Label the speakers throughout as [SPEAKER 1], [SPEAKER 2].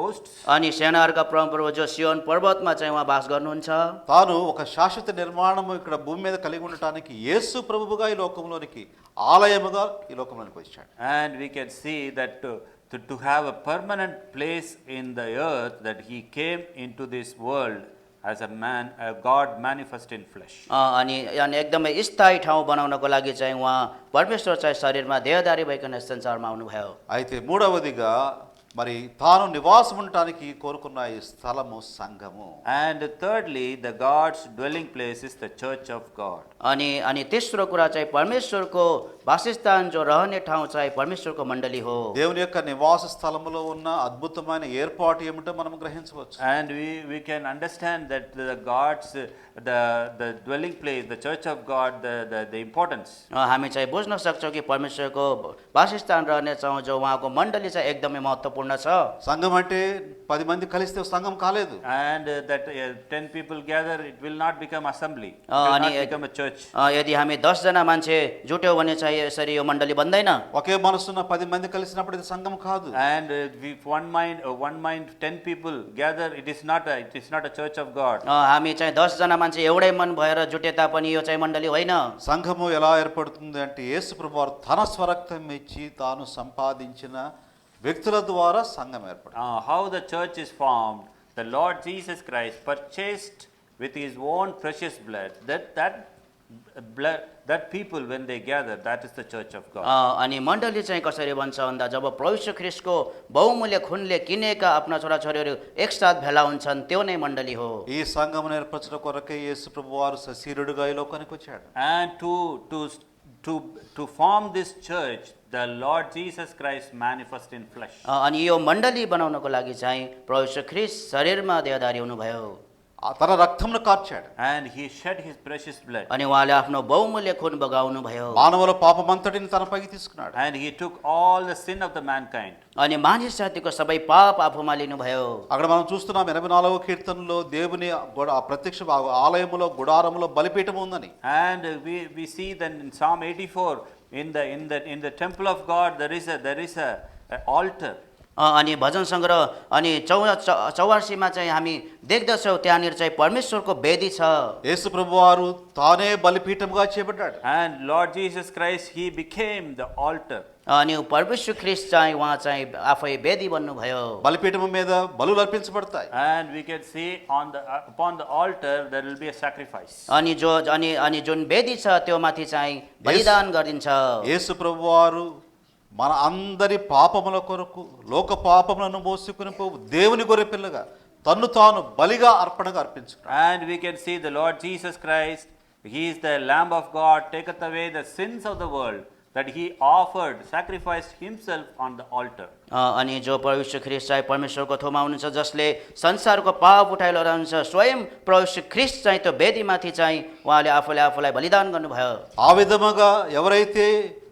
[SPEAKER 1] hosts.
[SPEAKER 2] अनि सेनाहरूका परमप्रभु जो सियोन पर्वतमा चाहिँ उहाँ बास गर्नुहुन्छ
[SPEAKER 3] తాను ఒక శాశ్వత నిర్మాణము ఇక్కడ భూమి మీద కలిగి ఉండటానికి యేసు ప్రభువుగా ఈ లోకంలోనికి ఆలయముగా ఈ లోకంలోనికి వచ్చాడు
[SPEAKER 1] And we can see that to, to, to have a permanent place in the earth, that he came into this world as a man, a God manifest in flesh.
[SPEAKER 2] अ, अनि अनि एकदमै स्थायी ठाउँ बनाउनको लागि चाहिँ उहाँ परमेश्वर चाहिँ शरीरमा देहदारी भइकन यस संसारमा आउनुभयो
[SPEAKER 3] అయితే మూడవదిగా మరి తాను నివాసం ఉండటానికి కోరుకున్న ఈ స్థలము సంఘము
[SPEAKER 1] And thirdly, the God's dwelling place is the church of God.
[SPEAKER 2] अनि अनि तेस्रो कुरा चाहिँ परमेश्वरको वासस्थान जो रहने ठाउँ चाहिँ परमेश्वरको मण्डली हो
[SPEAKER 3] దేవుని యొక్క నివాస స్థలములో ఉన్న అద్భుతమైన ఏర్పాటు ఏమిటో మనం గ్రహించవచ్చు
[SPEAKER 1] And we, we can understand that the God's, uh, the, the dwelling place, the church of God, the, the, the importance.
[SPEAKER 2] अ, हामी चाहिँ बुझ्न सक्छौँ कि परमेश्वरको वासस्थान रहने ठाउँ जो उहाँको मण्डली चाहिँ एकदमै महत्त्वपूर्ण छ
[SPEAKER 3] సంఘం అంటే పది మంది కలిస్తే సంఘం కాలేదు
[SPEAKER 1] And uh, that uh, 10 people gather, it will not become assembly, it
[SPEAKER 2] Ah,
[SPEAKER 1] will
[SPEAKER 2] and
[SPEAKER 1] not
[SPEAKER 2] it-
[SPEAKER 1] become a church.
[SPEAKER 2] अ, यदि हामी दसजना मान्छे जुट्यौँ भने चाहिँ यसरी यो मण्डली बन्दैन
[SPEAKER 3] ఒకే మనసున్న పది మంది కలిసినప్పుడు ఇది సంఘం కాదు
[SPEAKER 1] And uh, if one mind, uh, one mind, 10 people gather, it is not a, it is not a church of God.
[SPEAKER 2] अ, हामी चाहिँ दसजना मान्छे एउटै मन भएर जुटे तापनि यो चाहिँ मण्डली होइन
[SPEAKER 3] సంఘము ఎలా ఏర్పడుతుంది అంటే యేసు ప్రభువారు తన స్వరక్తం ఇచ్చి తాను సంపాదించిన వ్యక్తుల ద్వారా సంఘం ఏర్పడుతుంది
[SPEAKER 1] Uh, how the church is formed, the Lord Jesus Christ purchased with his own precious blood, that, that blood, that people when they gather, that is the church of God.
[SPEAKER 2] अ, अनि मण्डली चाहिँ कसरी बन्छ भन्दा जब प्रविश्व ख्रिस्टको बहुमूल्य खुनले किनेका आफ्ना छोराछोरीहरू एकसाथ भेला हुन्छन् त्यो नै मण्डली हो
[SPEAKER 3] ఈ సంఘమును ఏర్పరచడం కొరకే యేసు ప్రభువారు సశీరుడుగా ఈ లోకానికి వచ్చాడు
[SPEAKER 1] And to, to, to, to form this church, the Lord Jesus Christ manifest in flesh.
[SPEAKER 2] अ, अनि यो मण्डली बनाउनको लागि चाहिँ प्रविश्व ख्रिस्ट शरीरमा देहदारी हुनुभयो
[SPEAKER 3] ఆ తన రక్తమును కార్చాడు
[SPEAKER 1] And he shed his precious blood.
[SPEAKER 2] अनि उहाँले आफ्नो बहुमूल्य खुन बगाउनु भयो
[SPEAKER 3] మానవుల పాపమంతటిని తనపైకి తీసుకున్నాడు
[SPEAKER 1] And he took all the sin of the mankind.
[SPEAKER 2] अनि मानिस जातिको सबै पाप आफूमा लिनुभयो
[SPEAKER 3] అక్కడ మనం చూస్తున్నాం ఎనభై నాలుగవ కీర్తనలో దేవుని గుడ- ఆ ప్రత్యక్ష ఆ- ఆలయములో గుడారములో బలిపీఠం ఉందని
[SPEAKER 1] And uh, we, we see then in Psalm 84, in the, in the, in the temple of God, there is a, there is a, a altar.
[SPEAKER 2] अ, अनि भजन सङ्ग्रह अनि चौ चौवासीमा चाहिँ हामी देख्दछौँ त्यहाँनिर चाहिँ परमेश्वरको वेदी छ
[SPEAKER 3] యేసు ప్రభువారు తానే బలిపీఠముగా చేపట్టాడు
[SPEAKER 1] And Lord Jesus Christ, he became the altar.
[SPEAKER 2] अनि परमेश्वर ख्रिस्ट चाहिँ उहाँ चाहिँ आफै वेदी बन्नुभयो
[SPEAKER 3] బలిపీఠము మీద బలులు అర్పించబడతాయి
[SPEAKER 1] And we can see on the, uh, upon the altar, there will be a sacrifice.
[SPEAKER 2] अनि जो अनि अनि जुन वेदी छ त्यो माथि चाहिँ बलिदान गरिन्छ
[SPEAKER 3] యేసు ప్రభువారు మన అందరి పాపముల కొరకు లోక పాపములను మోసుకుని పోవు దేవుని గొర్రె పిల్లగా తన్ను తాను బలిగా అర్పణగా అర్పించుకున్నాడు
[SPEAKER 1] And we can see the Lord Jesus Christ, He is the Lamb of God, taketh away the sins of the world, that He offered, sacrificed Himself on the altar.
[SPEAKER 2] अ, अनि जो परमेश्वर ख्रिस्ट चाहिँ परमेश्वरको थोमा हुनुहुन्छ जसले संसारको पाप उठाइ रहन्छ स्वयं परमेश्वर ख्रिस्ट चाहिँ त्यो वेदीमाथि चाहिँ उहाँले आफूले आफूलाई बलिदान गर्नुभयो
[SPEAKER 3] ఆ విధముగా ఎవరైతే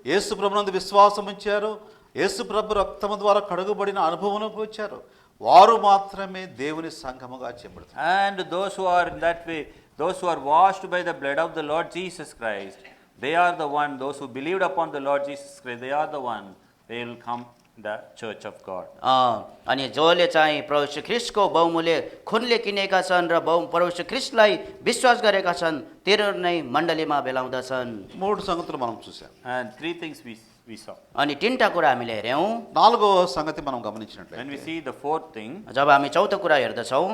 [SPEAKER 3] యేసు ప్రభునందు విశ్వాసం ఉంచారో యేసు ప్రభు రక్తము ద్వారా కడుగుబడిన అనుభవంలోకి వచ్చారో వారు మాత్రమే దేవుని సంఘముగా చెబుతారు
[SPEAKER 1] And those who are in that way, those who are washed by the blood of the Lord Jesus Christ, they are the one, those who believed upon the Lord Jesus Christ, they are the one, they will come the church of God.
[SPEAKER 2] अ, अनि जसले चाहिँ परमेश्वर ख्रिस्टको बहुमूल्य खुनले किनेका छन् र बहु परमेश्वर ख्रिस्टलाई विश्वास गरेका छन् तिनीहरू नै मण्डलीमा बेलाउँदछन्
[SPEAKER 3] మూడు సంగతులు మనం చూసాం
[SPEAKER 1] And three things we, we saw.
[SPEAKER 2] अनि तिनवटा कुरा हामीले हेऱ्यौँ
[SPEAKER 3] నాలుగవ సంగతి
[SPEAKER 1] When
[SPEAKER 3] మనం
[SPEAKER 1] we
[SPEAKER 3] గమనించినట్లయితే
[SPEAKER 1] see the fourth thing,
[SPEAKER 2] जब हामी चौथो कुरा हेर्दछौँ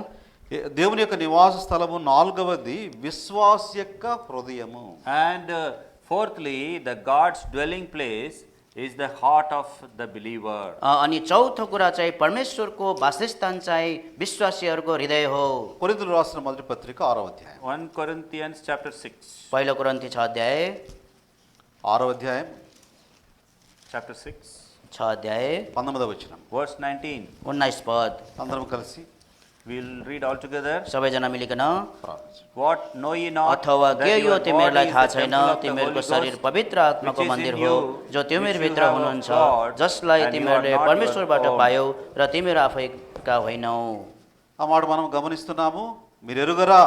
[SPEAKER 3] ఏ- దేవుని యొక్క నివాస స్థలము నాలుగవది విశ్వాస యొక్క హృదయము
[SPEAKER 1] And uh, fourthly, the God's dwelling place is the heart of the believer.
[SPEAKER 2] अ, अनि चौथो कुरा चाहिँ परमेश्वरको वासस्थान चाहिँ విశ్వాसीहरूको हृदय हो
[SPEAKER 3] కొరింథులు రాసిన మొదటి పత్రిక ఆరో అధ్యాయం
[SPEAKER 1] 1 Corinthians chapter 6,
[SPEAKER 2] पहिलो कुरन्ती छ अध्याय
[SPEAKER 3] ఆరో అధ్యాయం
[SPEAKER 1] chapter 6,
[SPEAKER 2] छ अध्याय
[SPEAKER 3] పంతొమ్మిదవ వచనం
[SPEAKER 1] verse 19.
[SPEAKER 2] उन्नाइस पद
[SPEAKER 3] అందరం కలిసి
[SPEAKER 1] We'll read all together.
[SPEAKER 2] सबैजना मिलिकन
[SPEAKER 3] ప్రార్థించండి
[SPEAKER 1] What know ye not
[SPEAKER 2] अथवा
[SPEAKER 1] that
[SPEAKER 2] के
[SPEAKER 1] your
[SPEAKER 2] यो
[SPEAKER 1] body
[SPEAKER 2] तिमीहरूलाई
[SPEAKER 1] is the
[SPEAKER 2] थाहा छैन
[SPEAKER 1] temple of the
[SPEAKER 2] तिमीहरूको
[SPEAKER 1] Holy
[SPEAKER 2] शरीर
[SPEAKER 1] Ghost,
[SPEAKER 2] पवित्र आत्माको
[SPEAKER 1] which is in
[SPEAKER 2] मन्दिर
[SPEAKER 1] you,
[SPEAKER 2] हो जो
[SPEAKER 1] which
[SPEAKER 2] तिमीहरूभित्र
[SPEAKER 1] you have of
[SPEAKER 2] हुनुहुन्छ
[SPEAKER 1] God,
[SPEAKER 2] जसलाई
[SPEAKER 1] and you are
[SPEAKER 2] तिमीहरूले
[SPEAKER 1] not your
[SPEAKER 2] परमेश्वरबाट
[SPEAKER 1] own.
[SPEAKER 2] पायौ र तिमीहरू आफैका होइनौ
[SPEAKER 3] ఆ మాట మనం గమనిస్తున్నాము మీరు ఎరుగరా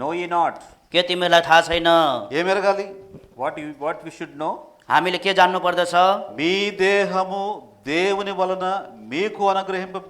[SPEAKER 1] Know ye not
[SPEAKER 2] के तिमीहरूलाई थाहा छैन
[SPEAKER 3] ఏం ఎరగాలి
[SPEAKER 1] what you what we should know?
[SPEAKER 2] हामीले के जान्नु पर्दछ
[SPEAKER 3] మీ దేహము దేవుని వలన మీకు అనుగ్రహింప